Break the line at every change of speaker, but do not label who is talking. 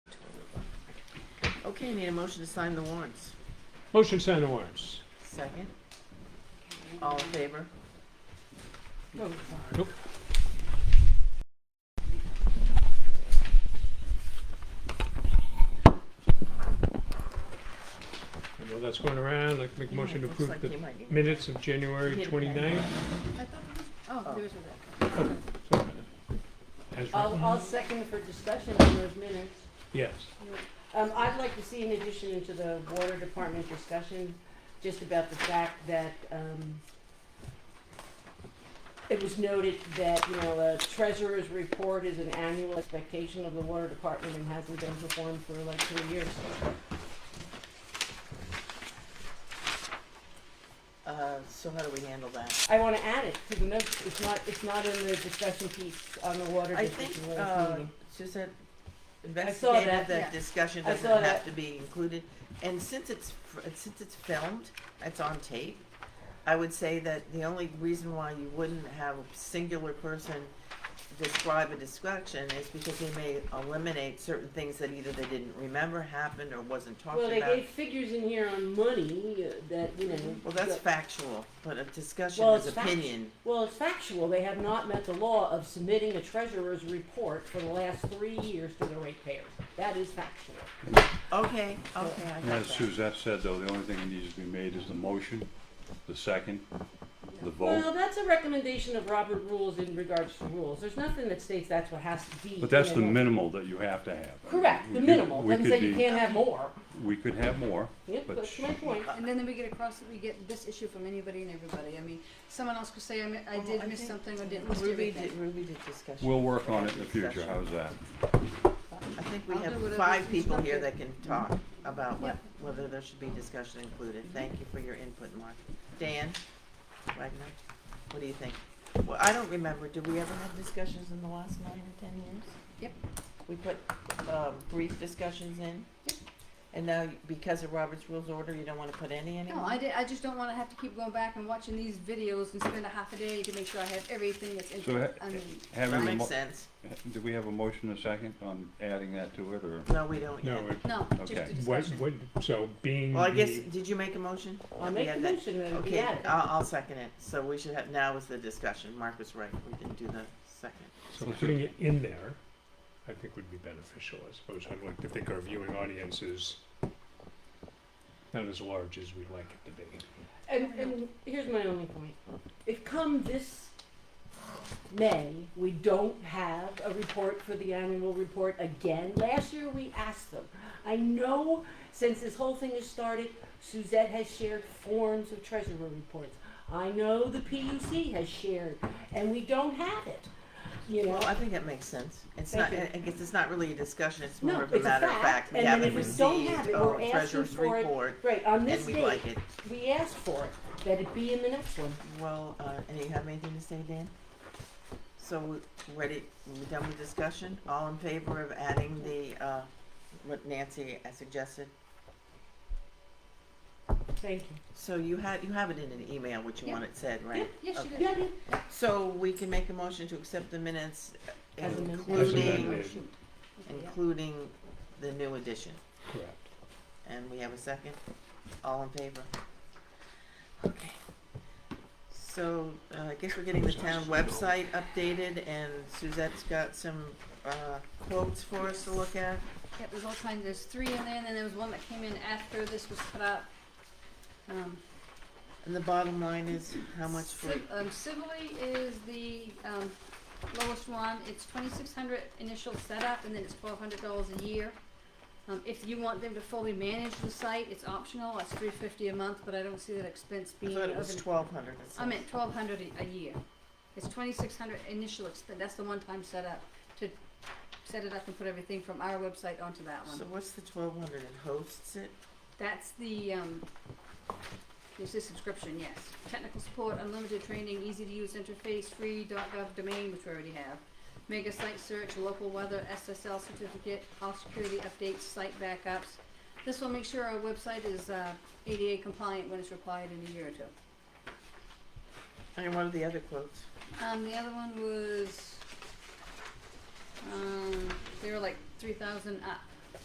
Okay, need a motion to sign the warrants.
Motion to sign the warrants.
Second. All in favor?
Nope. I know that's going around, I'd like to make a motion to
Looks
approve
like
the
you might get-
minutes of January
Hit it.
29th.
Oh, there's
As
I'll,
written.
I'll second for discussion on those minutes.
Yes,
Um, I'd like to see in addition into the water department discussion, just about the fact that, um, it was noted that, you know, a treasurer's report is an annual expectation of the water department and hasn't been performed for like three years.
Uh, so how do we handle that?
I wanna add it to the notes, it's not, it's not in the discussion piece on the water
I
district
think,
in the last
uh,
meeting.
Suzette
saw
investigated
that,
yeah.
that discussion
I
doesn't
saw
have
that.
to be included. And since it's, fr- since it's filmed, it's on tape, I would say that the only reason why you wouldn't have a singular person describe a discussion is because he may eliminate certain things that either they didn't remember happened or wasn't talked
Well,
about.
they gave figures in here on money uh, that, you know.
Well, that's
that-
factual, but a discussion
Well,
is
it's fact-
opinion.
Well, it's factual. They have not met the law of submitting a treasurer's report for the last three years to the ratepayers. That is factual.
Okay, okay, I got
As
that.
Suzette said, though, the only thing that needs to be made is the motion, the second, the
Well,
vote.
that's a recommendation of Robert rules in regards to rules. There's nothing that states that's what has to be.
But that's the
in a-
minimal that you have to have.
Correct,
We
the
could-
minimal.
We
Doesn't say you
could be,
can't have more.
we could have more,
Yep,
but
that's my point.
sh-
Uh,
I
Well,
think
I
And then we get across, we get this issue from anybody and everybody. I mean, someone else could say, I, mi- I did miss something or didn't miss
Ruby did,
everything.
Ruby did discussion.
we'll work on it in the
Discussion.
future, how's that?
I think we
I'll
have
do whatever's
five people here that can talk
constructive.
about what,
Yep.
whether there should be discussion included. Thank you for your input, Mark. Dan Wagner, what do you think? Well, I don't remember, did we ever have discussions in the last nine or ten years?
Yep.
We put, um, brief discussions in? And now, because of Robert's Rules Order, you don't wanna put any anymore?
No, I did, I just don't wanna have to keep going back and watching these videos and spend a half a day to make sure I have everything that's in,
So uh, ha-
I mean,
Having
That
the,
makes
mo-
sense.
do we have a motion and a second on adding that to it, or?
No, we don't
no,
yet.
it-
no, just
Okay.
a
what,
discussion.
what, so being
Well, I guess,
the-
did you make a motion?
I
Let me
make
add
the
that.
motion that we
Okay,
add it.
I'll, I'll second it. So we should have, now is the discussion. Mark was right. We didn't do the second.
So putting it in there, I think would be beneficial, I suppose. I'd like to think our viewing audience is not as large as we'd like it to be.
And, and here's my only point. If come this May, we don't have a report for the annual report again, last year we asked them. I know since this whole thing has started, Suzette has shared forms of treasurer reports. I know the PUC has shared, and we don't have it, you know?
Well, I think that makes sense. It's not,
Thank
I I guess it's not really a discussion. It's
No,
more of a
it's a
matter of
fact,
fact. We
and then
haven't
if we don't have
received
it, we're
a
asking
treasurer's
for it
report
Right, on this
and we'd
date,
like it.
we asked for it, that it be in the next one.
Well, uh, and you have anything to say, Dan? So we- ready, we done with discussion? All in favor of adding the, uh, what Nancy uh, suggested?
Thank you.
So you had, you have it in an email, what you
Yeah.
want it said, right?
Yes, you
Yeah,
did.
yeah.
So we can make a motion to accept the minutes, uh,
As amended.
As
including,
amended.
Oh, Shoot. Okay, yeah.
including the new addition.
Correct.
And we have a second? All in favor? Okay. So, uh, I guess we're getting the town website updated and Suzette's got some, uh, quotes for us to look at.
Yeah, there's all kinds, there's three in there, and then there was one that came in after this was put out. Um,
And the bottom line is how much for,
Civ- Um, Civilly is the, um, lowest one, it's twenty-six hundred initial setup, and then it's twelve hundred dollars a year. Um, if you want them to fully manage the site, it's optional, it's three fifty a month, but I don't see that expense
I
being
thought it was
of an-
twelve hundred or
I
something.
meant twelve hundred a, a year. It's twenty-six hundred initial expen- that's the one-time setup, to set it up and put everything from our website onto that one.
So what's the twelve hundred and hosts it?
That's the, um, there's the subscription, yes. Technical support, unlimited training, easy to use interface, free .gov domain, which we already have. Mega site search, local weather, SSL certificate, all security updates, site backups. This will make sure our website is, uh, ADA compliant when it's required in a year or two.
And what are the other quotes?
Um, the other one was, um, they were like three thousand up.